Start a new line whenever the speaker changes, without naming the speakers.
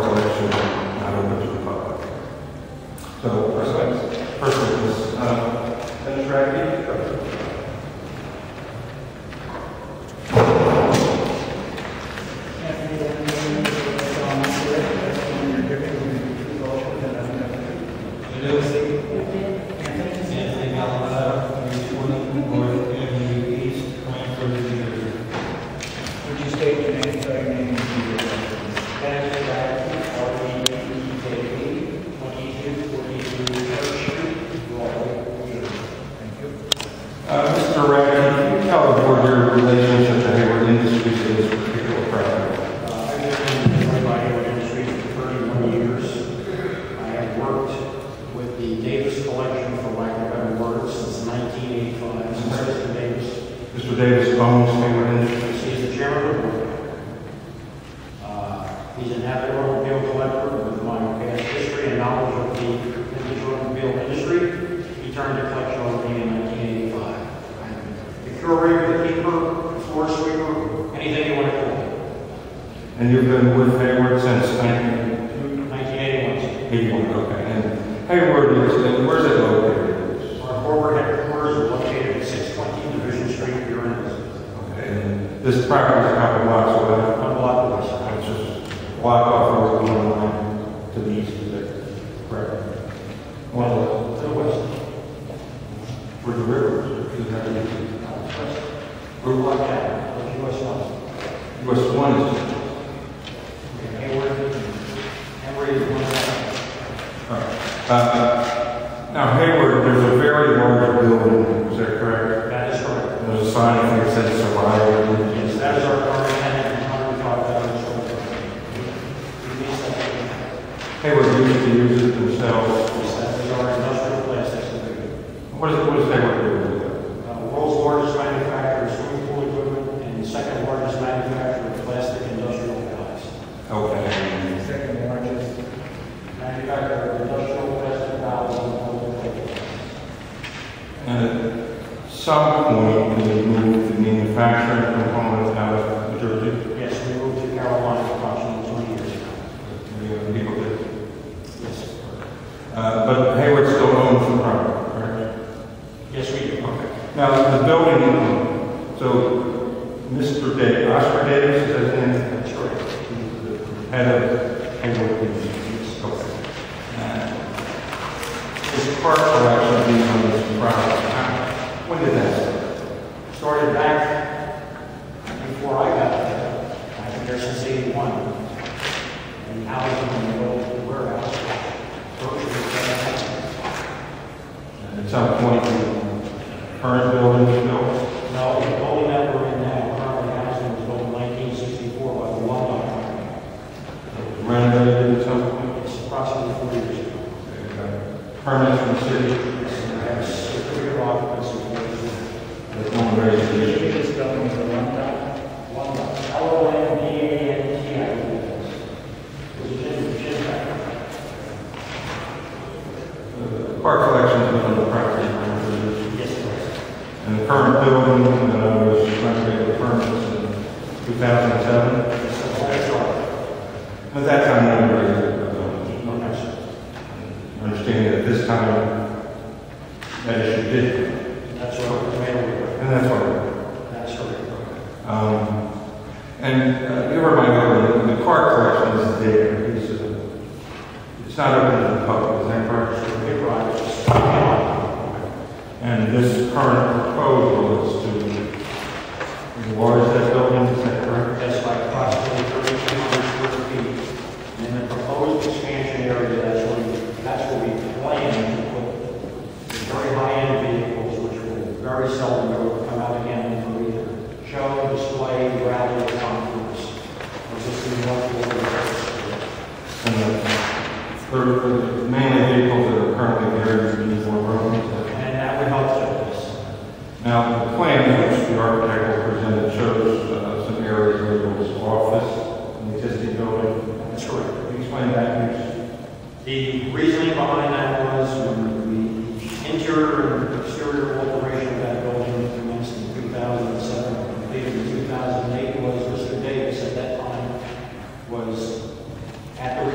Lucy. Anthony Malavado, 340 North Avenue East, Concord, New Jersey.
Would you state your name, spell your name, and your address?
Benedict Bradley, R.E.D.K.A., 2242 Church Street, Broadway, New Jersey.
Thank you.
Uh, Mr. Ryan, can you tell the board your relationship to Hayward Industries in this particular project?
Uh, I've been in the bodybuilding industry for 31 years. I have worked with the Davis Collection for lack of better words since 1985, since President Davis.
Mr. Davis owns Hayward Industries.
He is the chairman of the board. Uh, He's an avid automobile collector with my past history and knowledge of the vintage automobile industry. He turned the collection over to me in 1985. I'm The curator, the keeper, the floor sweeper, anything you want to call it.
And you've been with Hayward since 1981,
1981.
okay. And Hayward is, and where's it located?
Our corporate headquarters are located at 620 Division Street, here in Elizabeth.
Okay, and This property is a couple blocks away.
One block of us.
It's just block off Route 109 to the east of there. Correct. One of
To the west.
the, where the river is, is that the east? Route
Block down, which is west one.
one- West 1 is,
Hayward, Hayward is one of
Uh, Now Hayward, there's a very large building, is that correct?
them. That is correct.
There's a sign that says Survivor.
Yes, that is our current tenant, 105,000 square foot. We lease that,
Hayward used to use it themselves.
we lease that as our industrial plastics division.
What is, what is Hayward doing with
Uh, World's largest manufacturer of swimming pool equipment and second largest manufacturer of plastic industrial products.
it? Okay.
Second largest,
Manufacturer of industrial plastic valves and public plates.
And at some point, we moved the manufacturing component out of New Jersey.
Yes, we moved to Carolina approximately 20 years ago.
We, uh, People did.
Yes.
Uh, But Hayward still owns the property, correct?
Yes, we do. Okay.
Now, the building, so Mr. Davis, Oscar Davis, is his name?
That's correct.
Head of Hayward Industries. Okay. And His park collection being on this property, how- when did that start?
Started back before I got there. I've been there since 81. And now I'm in the old warehouse. Grocery
And At some point, the current building was built?
store. No, the building that we're in now, currently housing, was built in 1964 by the Walmart Company.
Renovated at some point? uh,
It's approximately 40 years ago.
Permits from the city,
Yes, and I have a certificate of occupancy. for this.
there's no raised
you
issue.
should spell it with a long time.
Uh, The Park collection is on the property, right?
Yes,
and the current building uh, was renovated permits in 2007. At that time, I remember, uh, understanding that this time, that issue did,
That's what we're made
and that's why.
of. That's what
Um, And uh, you ever mind, over the- the car collection is there, it's, uh, it's not open to the public, is that correct? And this current proposal is to enlarge that building, is that correct?
That's like approximately 3,200 square feet. And then the proposed expansion area, that's where, we- that's where we plan to put the very high-end vehicles, which will very seldom ever come out again for either show, display, rally, or conference. Or just in one floor.
And the, for- for the mainly vehicles that are currently there, you need more room. is that-
And that would help with this.
Now, the plan which the architect will present shows uh, some areas where there was office, an existing building.
That's correct.
Can you explain that, please?
The reasoning behind that was when the interior and